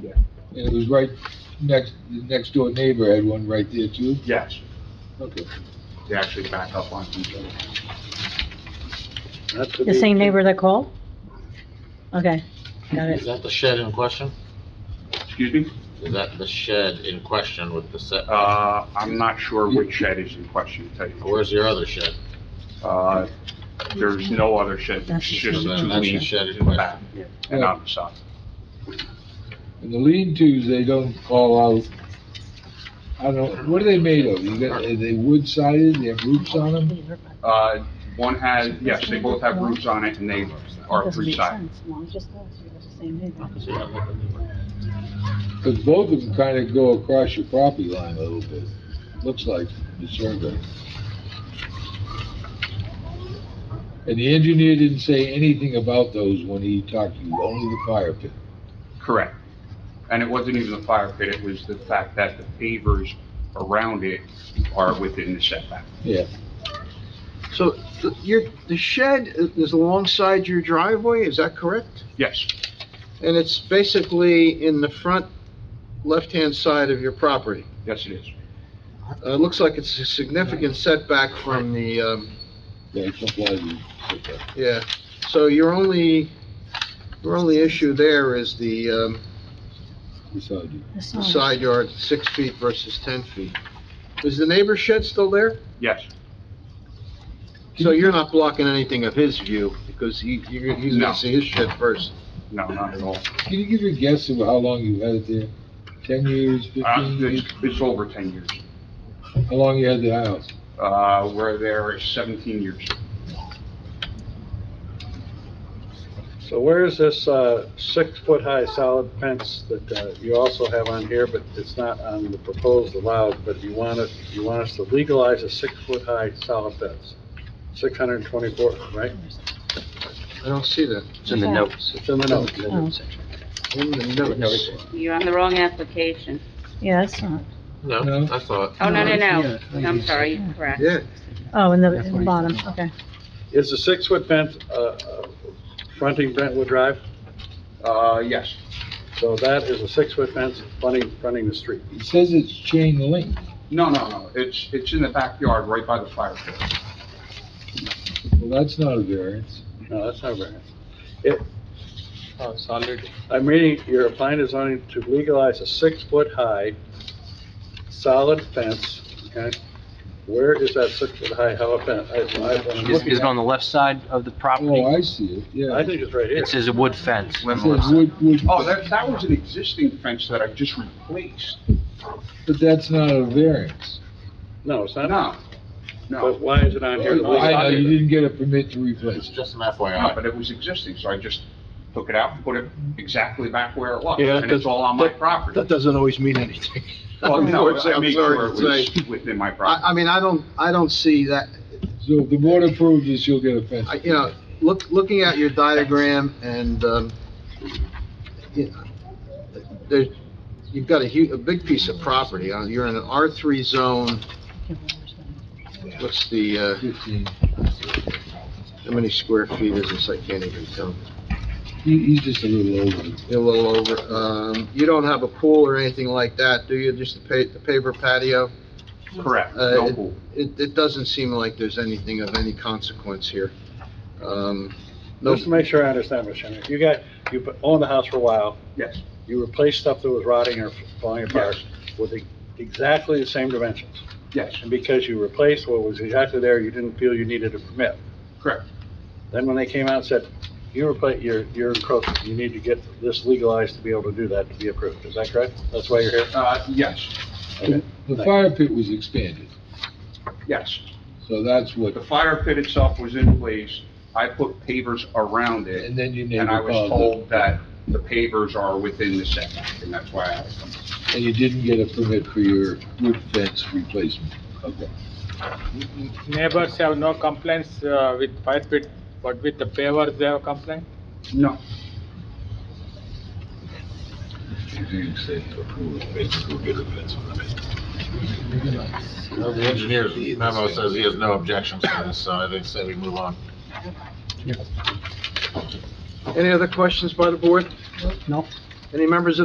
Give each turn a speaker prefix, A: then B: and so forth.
A: Yeah.
B: And it was right next, the next door neighbor had one right there too?
A: Yes,
B: Okay.
A: they actually back up on each other.
C: That could
D: The
C: be-
D: same neighbor that called? Okay, got
E: Is
D: it.
E: that the shed in question?
A: Excuse me?
E: Is that the shed in question with the set?
A: Uh, I'm not sure which shed is in question, to tell you the truth.
E: Where's your other shed?
A: Uh, there's no other shed, it's just the
E: That's
A: two
E: the
A: leaves
E: shed in
A: in the back
E: question.
A: and on the side.
B: And the lean-tos, they don't fall out. I don't, know. what are they made of? You got, are they wood sided? They have roofs on them?
A: Uh, one has, yes, they both have roofs on it and they are
D: Doesn't make
A: three-sided.
D: sense. Well, just us, you're the same neighbor.
B: Because both of them kind of go across your property line a little bit, looks like, from the survey. And the engineer didn't say anything about those when he talked to you, only the fire pit.
A: Correct. And it wasn't even the fire pit, it was the fact that the pavers around it are within the setback.
B: Yeah,
C: So th- your, the shed i- is alongside your driveway, is that correct?
A: Yes,
C: And it's basically in the front left-hand side of your property.
A: yes it is.
C: Uh, It looks like it's a significant setback from the, um,
B: yeah, it complies with that.
C: yeah. So your only, your only issue there is the um,
B: beside you.
D: The
C: the
D: sign.
C: side yard, six feet versus 10 feet. Is the neighbor's shed still there?
A: Yes,
C: So you're not blocking anything of his view, because he, you're- he's
A: No.
C: gonna see his shed first.
A: no, not at all.
B: Can you give your guess of how long you had it there? Ten years,
A: Uh,
B: fifteen years?
A: it's, it's over ten years.
B: How long you had the house?
A: Uh, we're there seventeen years.
F: So where is this uh, six-foot-high solid fence that uh, you also have on here, but it's not on the proposed allowed, but you want it, you want us to legalize a six-foot-high solid fence? 624, right?
C: I don't see that.
D: in the notes.
F: It's in the notes.
D: Oh,
C: In the notes.
G: You're on the wrong application.
D: yeah, that's not,
B: No.
E: No, I thought,
G: Oh, no, no, no. I'm sorry, you're correct.
C: Yeah,
D: oh, in the, in the bottom, okay.
F: Is the six-foot fence uh, uh, fronting Brentwood Drive?
A: Uh, yes,
F: So that is a six-foot fence fronting, fronting the street.
B: It says it's chain link.
A: no, no, no, it's, it's in the backyard, right by the fire pit.
B: Well, that's not a variance.
F: No, that's not variance. It. I'm reading, you're applying to zoning to legalize a six-foot-high solid fence, okay? Where is that six-foot-high fence?
H: Is, is it on the left side of the
B: Oh,
H: property?
B: I see it, yeah.
F: I think it's right here.
H: It says a wood fence.
B: It says wood, wood,
A: Oh, that, that was an existing fence that I just replaced.
B: but that's not a variance.
F: No, it's not,
A: No,
F: but
A: no,
F: why is it on
B: I
F: here?
B: know, you didn't get a permit to replace it.
E: just an
A: no,
E: FYI.
A: but it was existing, so I just took it out and put it exactly back where it was.
C: Yeah,
A: And it's all on my
C: that-
A: property.
C: doesn't always mean anything.
A: Well, no,
C: I'm sorry
A: I made sure it
C: to
A: was
C: say.
A: within my
C: I, I
A: property.
C: mean, I don't, I don't see that,
B: So if the board approves this, you'll get a fence.
C: I- you know, look, looking at your diagram and, um, you- there, you've got a hu, a big piece of property. Uh, You're in an R three zone, what's the, uh,
B: Fifteen.
C: how many square feet is this? I can't even tell.
B: He, he's just a little over. it.
C: A little over, um, you don't have a pool or anything like that, do you? Just the pa, the paver patio?
A: Correct,
C: uh,
A: no pool.
C: It, it doesn't seem like there's anything of any consequence here. Um, no,
F: Just to make sure I understand, Mr. Chairman, you got, you owned the house for a while,
A: Yes,
F: you replaced stuff that was rotting or falling apart with the- exactly the same dimensions.
A: yes,
F: And because you replaced what was exactly there, you didn't feel you needed a permit.
A: correct.
F: Then when they came out and said, you repla you're, you're encroaching, you need to get this legalized to be able to do that, to be approved, is that correct? That's why you're here?
A: Uh, yes,
F: Okay.
B: The fire pit was expanded,
A: yes.
B: so that's what,
A: The fire pit itself was in place. I put pavers around it.
B: and then your
A: And I
B: neighbor
A: was
B: followed,
A: told that the pavers are within the setback, and that's why I had to come.
B: and you didn't get a permit for your wood fence replacement. Okay.
I: Neighbors have no complaints uh, with fire pit, but with the pavers, they have complaint?
A: No,
E: Well, The engineer's memo says he has no objections to this, so I think say we move on.
C: any other questions by the board? Any members of